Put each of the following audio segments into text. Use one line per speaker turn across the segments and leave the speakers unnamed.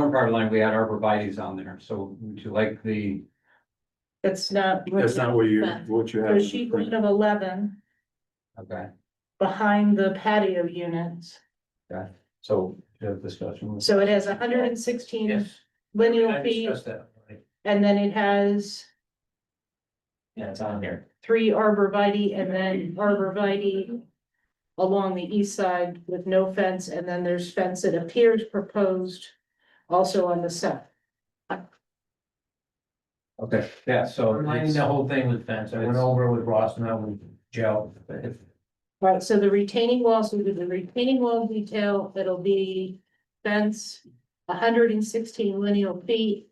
car line, we had arborvitae's on there, so would you like the,
That's not. what
That's not what you, what you have.
So sheet one of eleven,
okay,
behind the patio units,
so the discussion was.
so it has hundred and sixteen linear feet, and then it has
Yeah, it's on here.
three arborvitae and then arborvitae along the east side with no fence, and then there's fence that appears proposed also on the south.
Okay, yeah, so.
Reminding the whole thing with fence, I went over with Ross and I with Joe.
Right, so the retaining walls, we did the retaining wall detail, it'll be fence, hundred and sixteen lineal feet.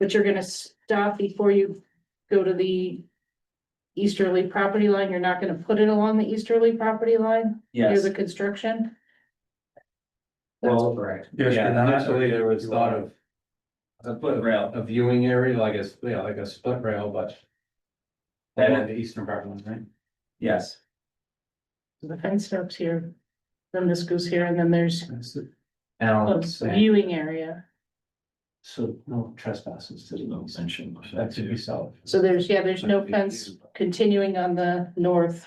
But you're gonna stop before you go to the easterly property line, you're not gonna put it along the easterly property line, near the construction.
Well,
correct.
Yes,
yeah,
but
initially there was
you
thought
are.
of. A split rail, a viewing area, like a, yeah, like a split rail, but.
That-
Along the eastern part line, right?
Yes.
The fence stops here, then this goes here, and then there's
That's it.
Um,
a
Alan, Sam,
viewing area.
so no trespasses to the extension, that should be solid.
So there's, yeah, there's no fence continuing on the north,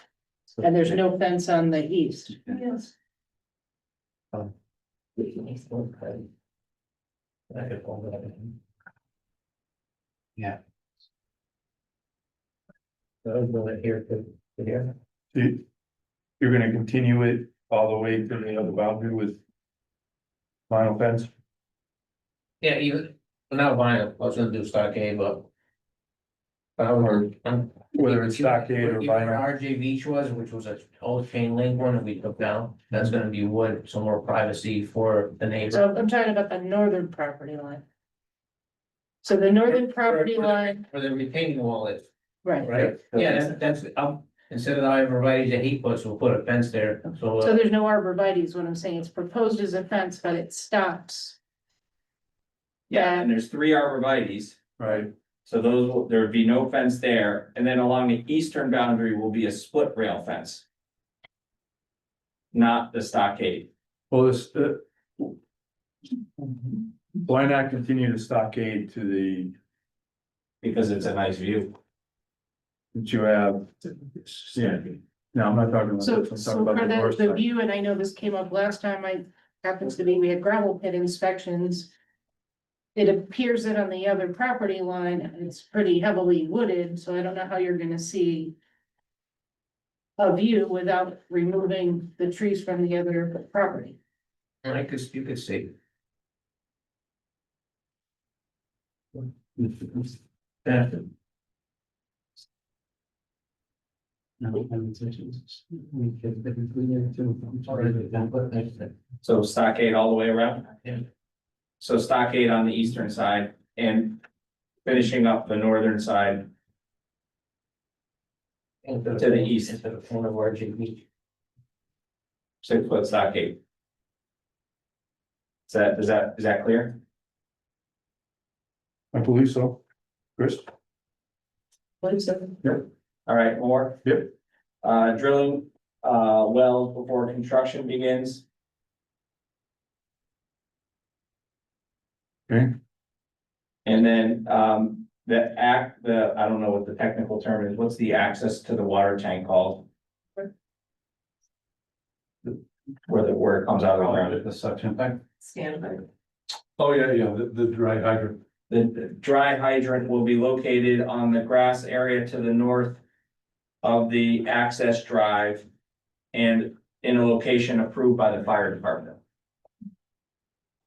and there's no fence on the east.
Yes. I could hold that in.
Yeah.
That was really here to, to here.
You- You're gonna continue it all the way to the other boundary with. Vinyl fence,
Yeah, even, not vinyl, I was gonna do stockade, but. I would, I'm.
whether it's stockade or vinyl.
RJ Beach was, which was an old chain link one that we took down, that's gonna be wood, some more privacy for the neighbor.
So I'm talking about the northern property line. So the northern property line,
For the retaining wall is,
right,
right? Yeah, that's, that's, um, instead of the arborvitae that he puts, we'll put a fence there, so.
so
uh,
there's no arborvitae's, what I'm saying, it's proposed as a fence, but it stops.
Yeah, and there's three arborvitae's,
Right,
so those, will- there would be no fence there, and then along the eastern boundary will be a split rail fence. Not the stockade.
well, this, uh. Why not continue the stockade to the,
Because it's a nice view.
that you have? Yeah, no, I'm not talking about
So,
this, I'm
so
talking about
for
the
the,
north
the
side.
view, and I know this came up last time, I, happens to be, we had gravel pit inspections. It appears that on the other property line, it's pretty heavily wooded, so I don't know how you're gonna see. A view without removing the trees from the other property.
I could, you could see. Yeah,
So stockade all the way around?
Yeah.
So stockade on the eastern side and finishing up the northern side,
To
the east.
To the corner of RJ Beach.
six foot stockade. Is that, is that, is that clear?
I believe so. Chris?
What is that?
All right, more?
Yep.
Uh, drilling, uh, wells before construction begins.
Okay.
And then, um, the act, the, I don't know what the technical term is, what's the access to the water tank called? Where the, where it comes out of the ground,
The suction pipe.
Oh, yeah, yeah, the, the dry hydrant.
the, the dry hydrant will be located on the grass area to the north. Of the access drive. And in a location approved by the fire department.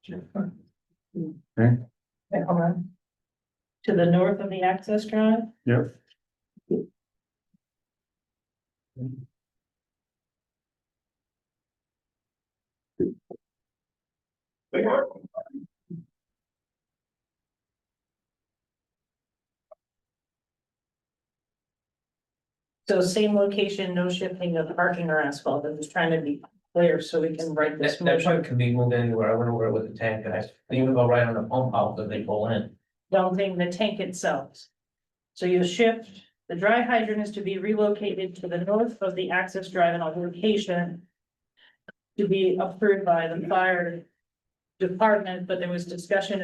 Wait, hold on. To the north of the access drive?
Yep.
So same location, no shifting of parking or asphalt, I'm just trying to be clear so we can write
That, that pipe can be moved anywhere, I went over it with the tank guys, they even go right on the pump out that they pull in.
dumping the tank itself. So you shift, the dry hydrant is to be relocated to the north of the access drive and location. To be approved by the fire department, but there was discussion